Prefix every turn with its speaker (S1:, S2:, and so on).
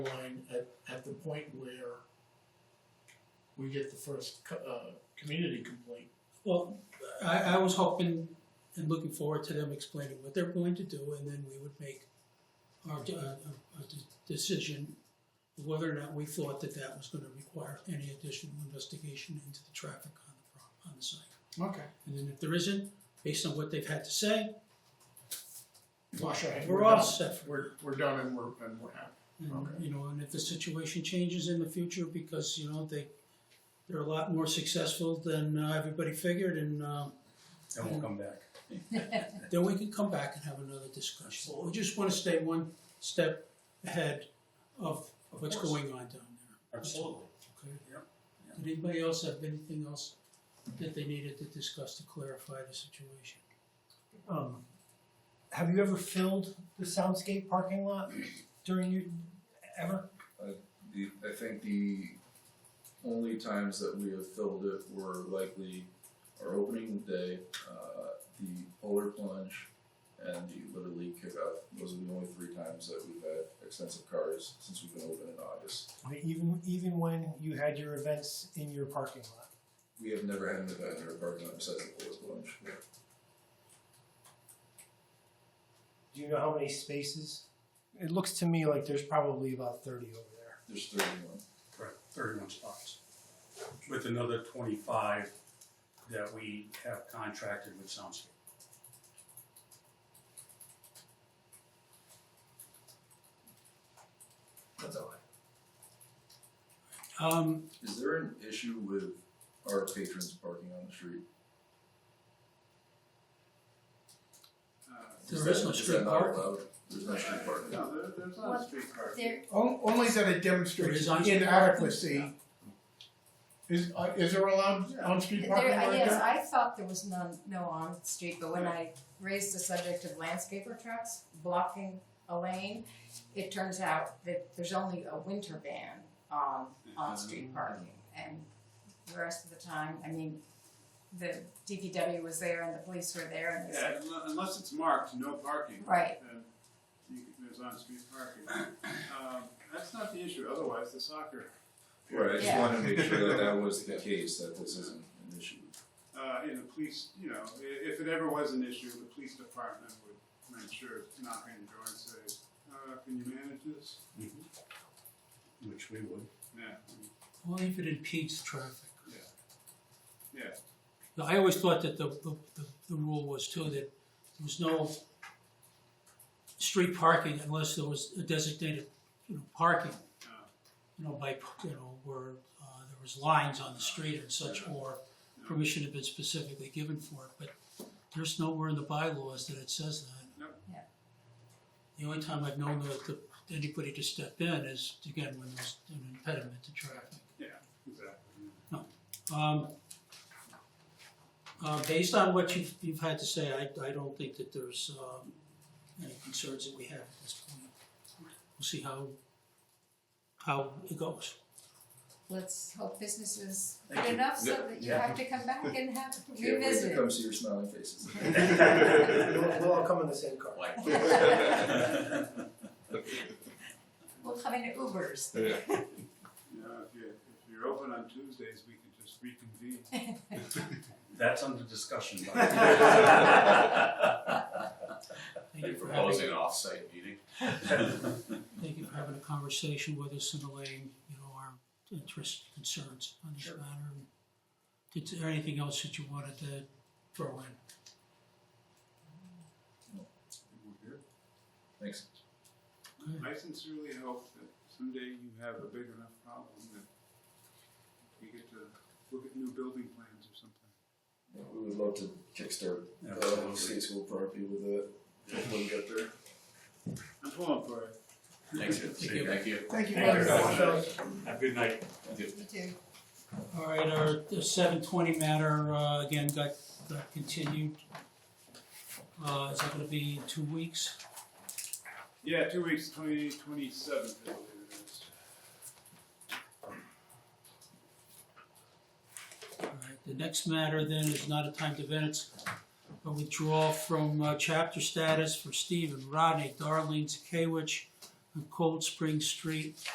S1: point where we get the first, co- uh, community complaint.
S2: Well, I, I was hoping and looking forward to them explaining what they're going to do, and then we would make our, uh, a decision of whether or not we thought that that was gonna require any additional investigation into the traffic on the, pro- on the site.
S1: Okay.
S2: And then if there isn't, based on what they've had to say,
S1: Flush out.
S2: we're all set for
S1: We're, we're done and we're, and we're happy.
S2: And,
S1: Okay.
S2: you know, and if the situation changes in the future, because, you know, they, they're a lot more successful than uh, everybody figured, and, um,
S3: And we'll come back.
S2: then we can come back and have another discussion. We just wanna stay one step ahead of of what's
S3: Of course.
S2: going on down there, Absolutely. okay?
S3: Yep, yep.
S2: Did anybody else have anything else that they needed to discuss to clarify the situation?
S4: Um, have you ever filled the soundscape parking lot during your ever?
S5: The, I think the only times that we have filled it were likely our opening day, uh, the polar plunge, and the Little League kickoff. Those are the only three times that we've had extensive cars since we've been open in August.
S4: Even even when you had your events in your parking lot.
S5: We have never had an event in our parking lot besides the polar plunge.
S4: Do you know how many spaces? It looks to me like there's probably about thirty over there.
S5: There's thirty-one.
S3: Correct, thirty-one spots. With another twenty-five that we have contracted with Soundscape.
S4: That's all.
S2: Um,
S5: Is there an issue with our patrons parking on the street?
S2: There is no
S5: that- uh,
S2: street
S5: that not
S2: parking.
S5: allowed? There's no street parking.
S6: Uh, No, there, there's not a
S7: What-
S6: street car.
S7: There,
S1: On- Only that it
S2: There
S1: demonstrates
S2: is on-
S1: inadequacy. Is, uh, is there allowed
S6: Yeah.
S1: on-street
S7: there,
S1: parking
S7: I
S1: right
S7: yes,
S1: there?
S7: I thought there was none, no on-street, but when I raised the subject of landscaper trucks blocking a lane, it turns out that there's only a winter ban on
S3: Mm-hmm.
S7: on-street parking. And the rest of the time, I mean, the DPW was there and the police were there and they said,
S6: Yeah, unle- unless it's marked, no parking.
S7: Right.
S6: then you can- There's on-street parking. Um, That's not the issue, otherwise the soccer,
S5: Right, I just
S7: Yeah.
S5: wanted to make sure that that was the case, that this isn't an issue.
S6: uh, in the police, you know, i- if it ever was an issue, the police department would, I'm sure, knock on your door and say, uh, can you manage this?
S3: Which we would.
S6: Yeah,
S2: only if it impedes traffic.
S6: yeah.
S2: Now, I always thought that the, the, the, the rule was too, that there was no street parking unless there was a designated, you know, parking.
S6: Ah.
S2: You know, by, you know, where, uh, there was lines on the street and such, or permission had been specifically given for it, but there's nowhere in the bylaws that it says that.
S6: Nope.
S7: Yeah.
S2: The only time I've known that, the- anybody to step in is, again, when there's an impediment to traffic.
S6: Exactly.
S2: Um, uh, based on what you've, you've had to say, I, I don't think that there's, um, any concerns that we have at this point. We'll see how, how it goes.
S7: let's hope business is
S3: Thank
S7: good
S3: you.
S7: enough so
S3: Yeah.
S7: that you
S3: Yeah.
S7: have to come back and have
S5: Can't wait
S7: revisit
S5: to
S7: it.
S5: come see your smiling faces.
S4: We'll, we'll all come in the same car.
S7: We'll come in Ubers.
S6: Yeah, if you're, if you're open on Tuesdays, we could just reconvene.
S3: That's under discussion. by-
S2: Thank you for having,
S5: an off-site meeting?
S2: thank you for having a conversation with us and allaying, you know, our interests, concerns on this matter. Did, is there anything else that you wanted to throw in?
S5: Thanks.
S6: I sincerely hope that someday you have a big enough problem that you get to look at new building plans or something.
S5: Yeah, We would love to kickstart the
S3: Absolutely.
S5: state school property with it. Hopefully we get there.
S6: I'm pulling for it.
S5: Thanks,
S2: Thank you.
S5: Thank you.
S1: Thank you
S7: Thank
S1: very
S7: you.
S1: much.
S3: Have a good night.
S7: Me too.
S2: All right, our seven twenty matter, uh, again, got, got continued. Uh, is that gonna be in two weeks?
S6: Yeah, two weeks, twenty twenty seventh, I believe it is.
S2: All right, the next matter then is not a timed event, it's a withdrawal from, uh, chapter status for Stephen Rodney, Darlene Zakewicz on Cold Spring Street,